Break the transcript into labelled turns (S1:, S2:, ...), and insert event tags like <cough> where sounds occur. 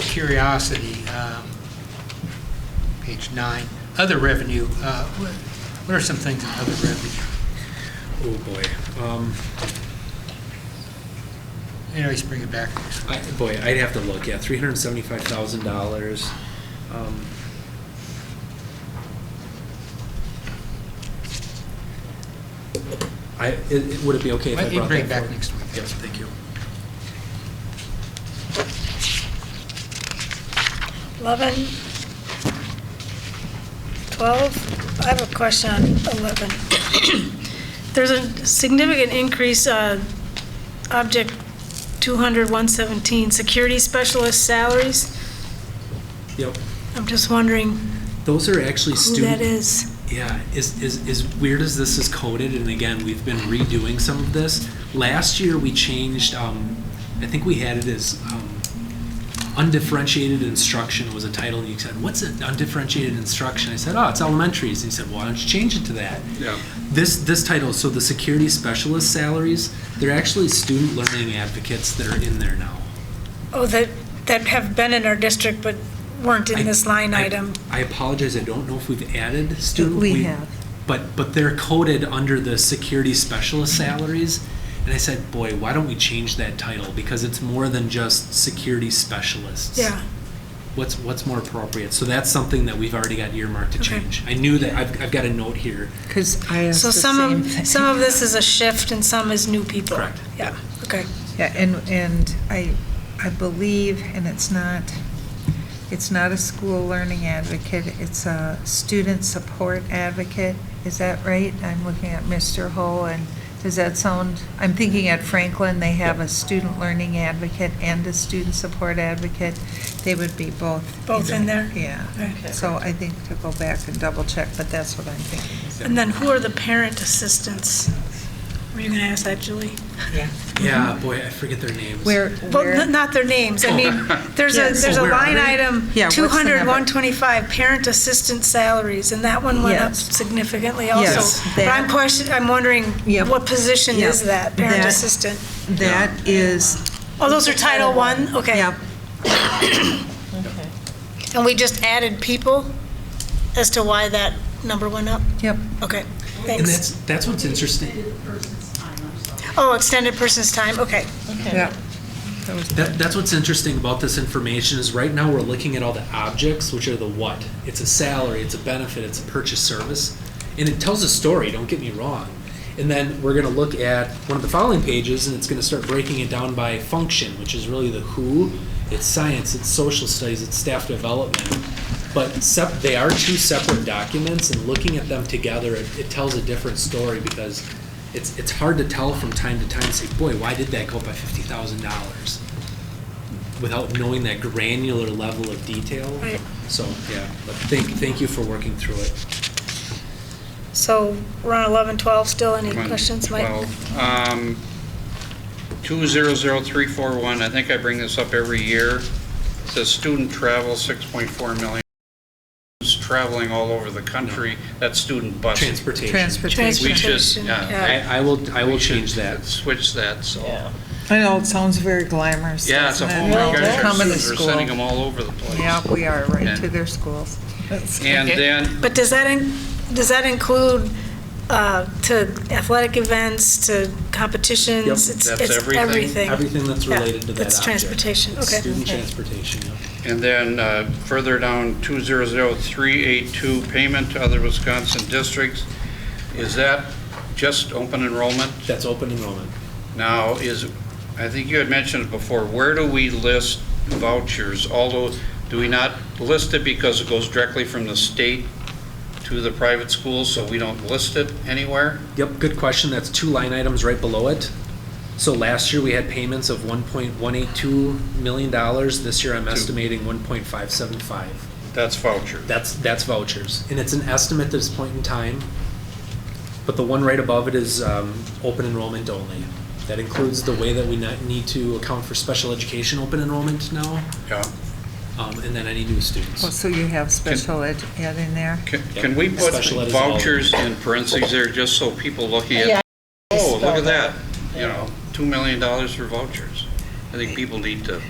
S1: curiosity, um, page nine, other revenue, uh, what what are some things in other revenue?
S2: Oh, boy. Um,
S1: You always bring it back.
S2: I, boy, I'd have to look, yeah, three hundred and seventy-five thousand dollars. Um, I, it- it, would it be okay if I
S1: Well,
S2: brought
S1: you
S2: that
S1: bring it back
S2: forward?
S1: next week.
S2: Yes, thank you.
S3: Eleven, twelve, I have a question on eleven. <clears throat> There's a significant increase, uh, object two hundred one seventeen, security specialist salaries.
S2: Yep,
S3: I'm just wondering
S2: those are actually
S3: who
S2: student.
S3: that is.
S2: Yeah, is, is, as weird as this is coded, and again, we've been redoing some of this. Last year, we changed, um, I think we had it as, um, undifferentiated instruction was a title, and you said, what's an undifferentiated instruction? I said, oh, it's elementaries, and he said, why don't you change it to that?
S4: Yeah.
S2: This, this title, so the security specialist salaries, they're actually student learning advocates that are in there now.
S3: Oh, that, that have been in our district but weren't in this line
S2: I-
S3: item.
S2: I apologize, I don't know if we've added student.
S5: We have.
S2: But, but they're coded under the security specialist salaries. And I said, boy, why don't we change that title? Because it's more than just security specialists.
S3: Yeah,
S2: What's, what's more appropriate? So that's something that we've already got earmarked to
S3: Okay.
S2: change. I knew that, I've, I've got a note here.
S5: Because I asked
S3: so
S5: the
S3: some
S5: same
S3: of,
S5: thing.
S3: some of this is a shift and some is new people.
S2: Correct.
S3: Yeah, okay.
S5: Yeah, and, and I, I believe, and it's not, it's not a school learning advocate, it's a student support advocate. Is that right? I'm looking at Mr. Ho, and does that sound, I'm thinking at Franklin, they have a student learning advocate and a student support advocate. They would be both.
S3: Both in there?
S5: Yeah.
S3: Okay.
S5: So I think to go back and double check, but that's what I'm thinking.
S3: And then who are the parent assistants? Were you going to ask that, Julie?
S5: Yeah.
S3: Mm-hmm.
S2: Yeah, boy, I forget their names.
S5: Where,
S3: Well,
S5: where?
S3: n- not their names, I mean, <laughs> there's a, there's a
S2: Oh. Where are
S3: line
S2: they?
S3: item,
S5: Yeah, what's the
S3: 200,
S5: number?
S3: 125, parent assistant salaries, and that one went up
S5: Yes.
S3: significantly
S5: Yes,
S3: also. But I'm
S5: that-
S3: questioning, I'm wondering,
S5: Yep.
S3: what position
S5: Yep.
S3: is that, parent
S5: That-
S3: assistant?
S5: That is
S3: Oh, those are Title I, okay.
S5: Yep,
S3: And we just added people as to why that number went up?
S5: yep.
S3: Okay,
S2: And
S3: thanks.
S2: that's, that's what's interesting.
S3: Oh, extended person's time, okay.
S5: Yep.
S2: That, that's what's interesting about this information is right now we're looking at all the objects, which are the what. It's a salary, it's a benefit, it's a purchase service, and it tells a story. Don't get me wrong. And then we're going to look at one of the following pages, and it's going to start breaking it down by function, which is really the who, it's science, it's social studies, it's staff development. But sep- they are two separate documents, and looking at them together, it, it tells a different story because it's it's hard to tell from time to time. Say, boy, why did that go up by fifty thousand dollars? without knowing that granular level of detail.
S3: Right.
S2: So, yeah, but thank, thank you for working through it.
S3: So we're on 11, 12 still, any
S4: One,
S3: questions, Mike?
S4: 12. Um, 200341, I think I bring this up every year. It Says student travel, 6.4 million. Who's Traveling all over the country, that's student buses.
S2: Transportation.
S4: We
S5: Transportation.
S4: just,
S3: Transportation,
S4: yeah.
S3: yeah.
S2: I, I will, I will change that.
S4: Switch that, so.
S5: I know, it sounds very glamorous.
S4: Yeah, it's a
S5: doesn't it?
S4: whole, you
S5: They're
S4: guys are
S5: coming to
S4: students are sending
S5: school.
S4: them all over the place.
S5: Yeah, we are, right
S4: Yeah.
S5: to their schools.
S4: And then,
S3: But does that, in- does that include uh, to athletic events, to competitions?
S2: Yep,
S3: It's-
S4: that's
S3: it's
S4: everything.
S2: Everything that's
S3: Yeah,
S2: related to that
S3: that's
S2: object.
S3: transportation, okay.
S2: Student transportation, yeah.
S4: And then uh, further down, 200382, payment to other Wisconsin districts. Is that just open enrollment?
S2: That's open enrollment.
S4: Now, is, I think you had mentioned it before, where do we list vouchers? Although, do we not list it because it goes directly from the state to the private schools, so we don't list it anywhere?
S2: Yep, good question. That's two line items right below it. So last year, we had payments of one point one eight two million dollars. This year, I'm estimating one point five seven five.
S4: That's voucher.
S2: That's, that's vouchers, and it's an estimate at this point in time, but the one right above it is um, open enrollment only. That includes the way that we not- need to account for special education open enrollment now,
S4: Yeah.
S2: um, and then any new
S5: Well,
S2: students.
S5: so you have special ed ed in there?
S4: Can- Can we put
S2: Special ed is all-
S4: vouchers in parentheses there, just so people looking at, oh, look at that, you know, $2 million for vouchers? I think people need to